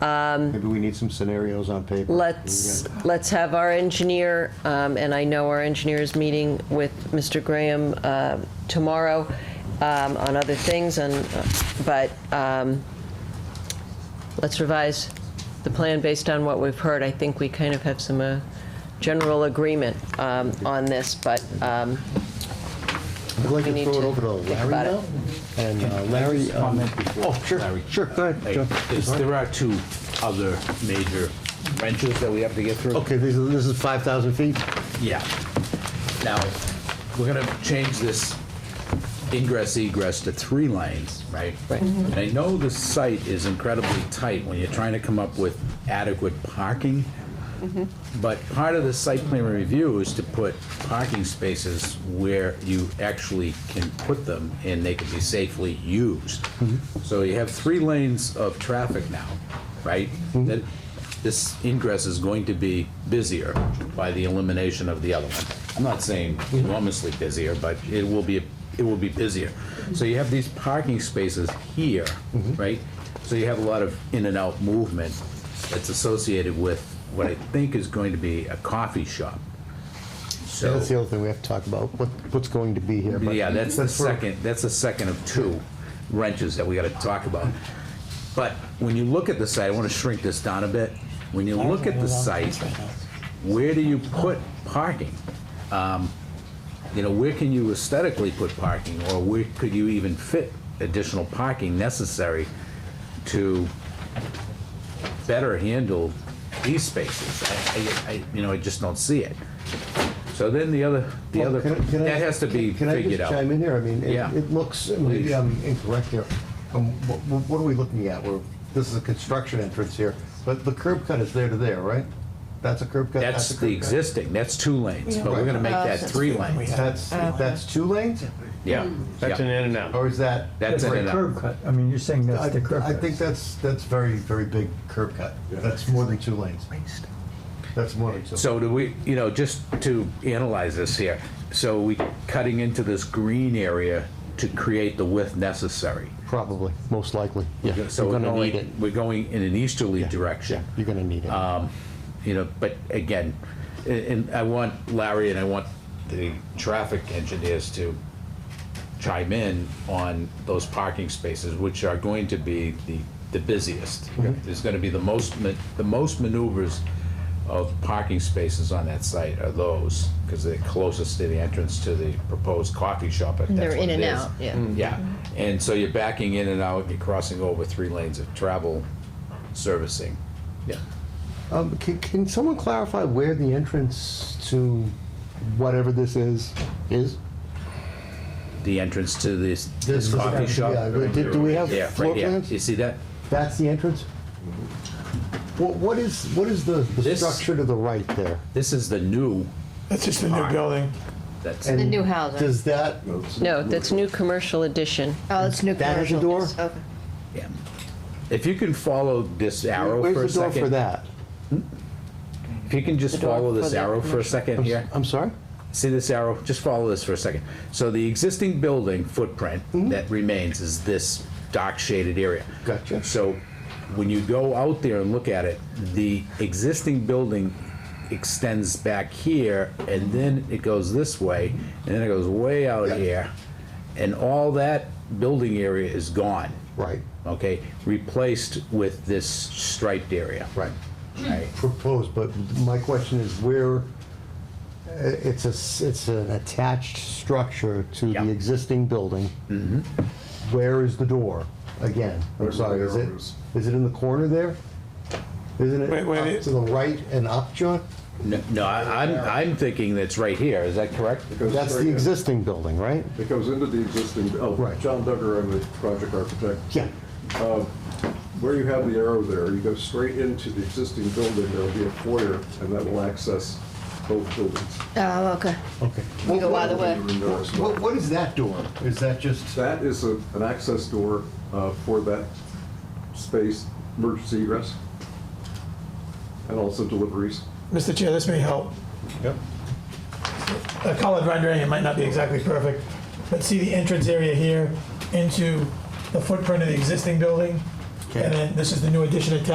Maybe we need some scenarios on paper. Let's, let's have our engineer, um, and I know our engineer is meeting with Mr. Graham uh, tomorrow um, on other things, and, uh, but um, let's revise the plan based on what we've heard. I think we kind of have some uh, general agreement um, on this, but um, I'd like we to need throw it to over to think Larry about it. now. And uh, Larry, um, Oh, sure. sure, go ahead, John. Is- There are two other major wrenches that we have to get through. Okay, this is, this is 5,000 feet? Oh, Yeah. Now, we're gonna change this ingress egress to three lanes, right? Right. And I know the site is incredibly tight when you're trying to come up with adequate parking. But part of the site plan review is to put parking spaces where you actually can put them and they can be safely used. So you have three lanes of traffic now, right? That this ingress is going to be busier by the elimination of the other one. I'm not saying enormously busier, but it will be, it will be busier. So you have these parking spaces here, right? So you have a lot of in and out movement that's associated with what I think is going to be a coffee shop. So, That's the other thing we have to talk about, what, what's going to be here. but- yeah, that's the for- second, that's the second of two wrenches that we gotta talk about. But when you look at the site, I wanna shrink this down a bit. When you look at the site, where do you put parking? Um, You know, where can you aesthetically put parking, or where could you even fit additional parking necessary to better handle these spaces. I, I, I, you know, I just don't see it. So then the other, the Well, other, Oh, can I- can I- that has to be can I just figured out. Chime in here, I mean, it, Yeah. it looks, maybe Please. I'm incorrect here. Um, what, what are we looking at? We're, this is a construction entrance here, but the curb cut is there to there, right? That's a curb cut? That's a the curb cut? existing, that's two lanes, but we're gonna make Uh, that so- three lanes. That's, that's two lanes, Yeah. That's yeah. an in and out. or is that? That's That's it. a curb cut. I mean, you're saying I, that's the curb I cut. think that's, that's very, very big curb cut. That's more than two lanes. That's more than two. So do we, you know, just to analyze this here, so we cutting into this green area to create the width necessary. Probably, most likely, yeah. So You're we're gonna need going, it. we're going in an easterly Yeah, direction. you're gonna need it. Um, You know, but again, a- and I want Larry and I want the traffic engineers to chime in on those parking spaces, which are going to be the, the busiest. There's gonna be the most, ma- the most maneuvers of parking spaces on that site are those, because they're closest to the entrance to the proposed coffee shop, if that's They're what in it and is. out, yeah. Yeah, and so you're backing in and out, you're crossing over three lanes of travel servicing. Yeah. Um, can, can someone clarify where the entrance to whatever this is, is? The entrance to this, This this is- coffee shop. yeah, do- do we have Yeah, right floor there. plans? You see that? That's the entrance? What, what is, what is the, the This- structure to the right there? This is the new, That's just a new building. that's, The And new housing. Does that, no, that's new commercial addition. Oh, it's new That has a commercial. door? Yes, okay. yeah. If you can follow this arrow for a where's the door for second. that? If you can just door follow this for the arrow for a second here. I'm sorry? See this arrow? Just follow this for a second. So the existing building footprint Mm-hmm. that remains is this dark shaded area. Gotcha. So when you go out there and look at it, the existing building extends back here and then it goes this way and then it goes way out Yeah. here. And all that building area is gone. Right, Okay, replaced with this striped area. right. Right. Proposed, but my question is where, uh, it's a, s- it's an attached structure to Yeah. the existing building. Where is the door? Again, I'm sorry, is it, is it in the corner there? Isn't it Wait, wait, up to the right and up, John? No, no, I- I'm, I'm thinking that's right here. Is that correct? goes That's straight the in. existing building, right? It goes into the existing, oh, Right. John Duggar, I'm the project architect. Yeah. Where you have the arrow there, you go straight into the existing building, there'll be a foyer, and that will access both buildings. Oh, okay. Okay. We go either way. Your indoor as well. What, what is that door? Is that just? That is a- an access door uh, for that space, emergency egress, and also deliveries. Mr. Chair, this may help. Yep. A colored rendering, it might not be exactly perfect, but see the entrance area here into the footprint of the existing building? And then this is the new addition attached